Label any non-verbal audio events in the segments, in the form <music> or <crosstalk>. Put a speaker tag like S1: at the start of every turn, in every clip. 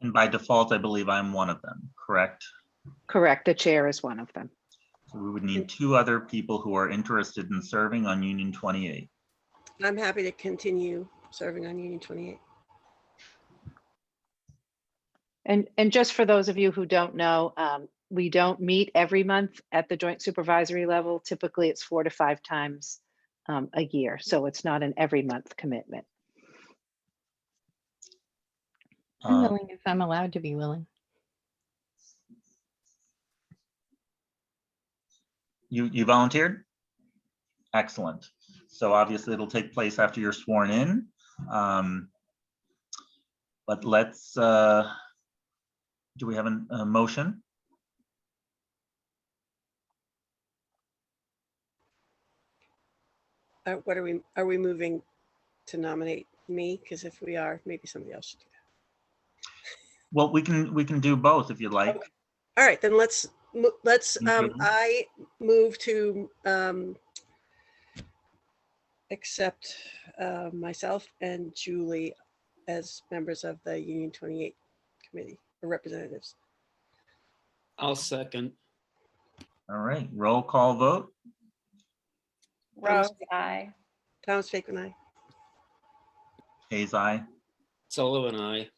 S1: And by default, I believe I'm one of them, correct?
S2: Correct, the chair is one of them.
S1: So We would need two other people who are interested in serving on Union 28.
S3: I'm happy to continue serving on Union 28.
S2: And, and just for those of you who don't know, um, we don't meet every month at the joint supervisory level. Typically, it's four to five times um, a year, so it's not an every month commitment.
S4: I'm
S1: Uh,
S4: willing if I'm allowed to be willing.
S1: You, you volunteered? Excellent. So obviously it'll take place after you're sworn in. Um, But let's, uh, do we have an- a motion?
S3: Uh, What are we, are we moving to nominate me? Because if we are, maybe somebody else should do
S1: Well, we can, we can do both if you'd like.
S3: that. All right, then let's, mo- let's, um,
S1: Mhm.
S3: I move to um, accept uh, myself and Julie as members of the Union 28 Committee or representatives.
S5: I'll second.
S1: All right, roll call vote.
S6: Rose, I.
S3: Thomas Bacon, I.
S1: Hayes, aye.
S5: Sullivan, I.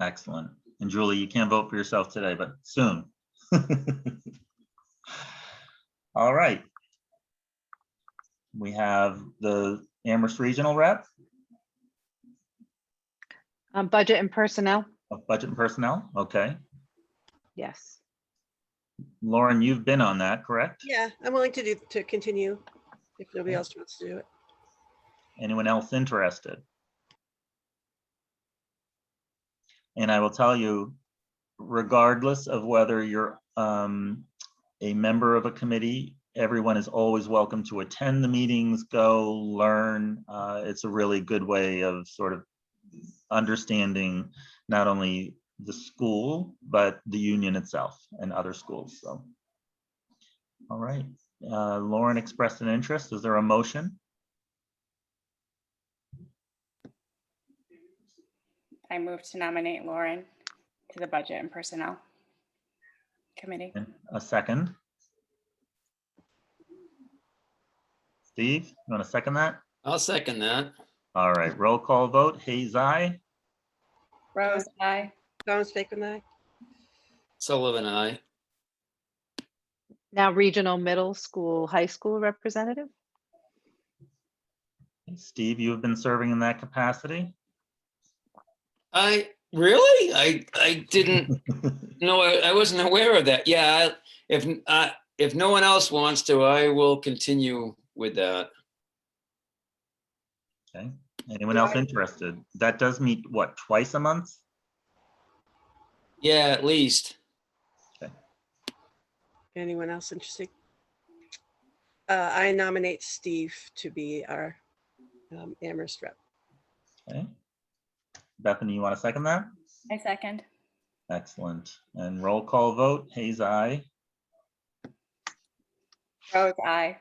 S1: Excellent. And Julie, you can't vote for yourself today, but soon. <laughs> All right. We have the Amherst Regional Rep
S2: Um, Budget and personnel,
S1: of Budget and Personnel. Okay.
S2: yes.
S1: Lauren, you've been on that, correct?
S3: Yeah, I'm willing to do, to continue if nobody
S1: Yeah.
S3: else wants to do it.
S1: Anyone else interested? And I will tell you, regardless of whether you're um, a member of a committee, everyone is always welcome to attend the meetings, go learn. Uh, It's a really good way of sort of understanding not only the school, but the union itself and other schools, so. All right, Uh, Lauren expressed an interest. Is there a motion?
S6: I move to nominate Lauren to the Budget and Personnel Committee.
S1: And A second. Steve, you want to second that?
S5: I'll second that.
S1: All right, roll call vote. Hayes, aye.
S6: Rose, I.
S3: Thomas Bacon, I.
S5: Sullivan, I.
S2: Now regional middle school, high school representative,
S1: Steve, you have been serving in that capacity?
S5: I, really? I, I didn't, no, I I wasn't aware of that. Yeah, I- if, I if no one else wants to, I will continue with that.
S1: Okay, anyone else interested? That does meet, what, twice a month?
S5: Yeah, at least.
S3: Anyone else interested? Uh, I nominate Steve to be our um, Amherst rep.
S1: Okay. Bethany, you want to second that?
S6: I second.
S1: Excellent. And roll call vote. Hayes, aye.
S6: Rose, I.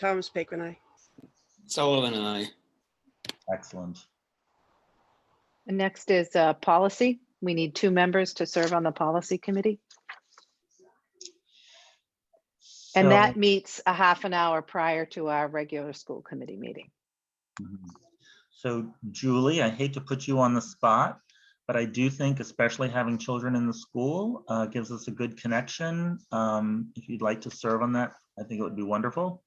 S3: Thomas Bacon, I.
S5: Sullivan, I.
S1: Excellent.
S2: and next is uh, policy. We need two members to serve on the policy committee,
S1: So-
S2: and that meets a half an hour prior to our regular school committee meeting.
S1: Mhm. So Julie, I hate to put you on the spot, but I do think especially having children in the school uh, gives us a good connection. Um, If you'd like to serve on that, I think it would be wonderful.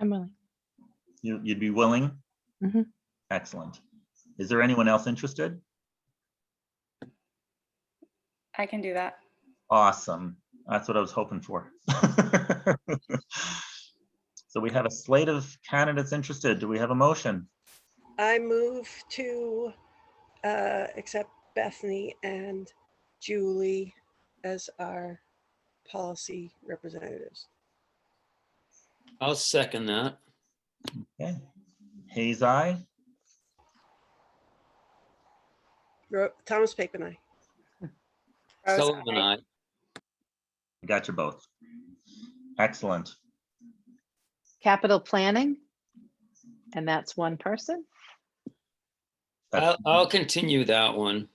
S4: I'm willing.
S1: You- You'd be willing?
S4: Mhm.
S1: Excellent. Is there anyone else interested?
S6: I can do that.
S1: Awesome. That's what I was hoping for. <laughs> So we have a slate of candidates interested. Do we have a motion?
S3: I move to uh, accept Bethany and Julie as our policy representatives.
S5: I'll second that.
S1: Okay. Hayes, aye.
S3: Ro- Thomas Bacon, I.
S6: Rose,
S5: Sullivan,
S6: I.
S5: I.
S1: I Got you both. Excellent.
S2: Capital planning, and that's one person.
S1: That's-
S5: I'll, I'll continue that one.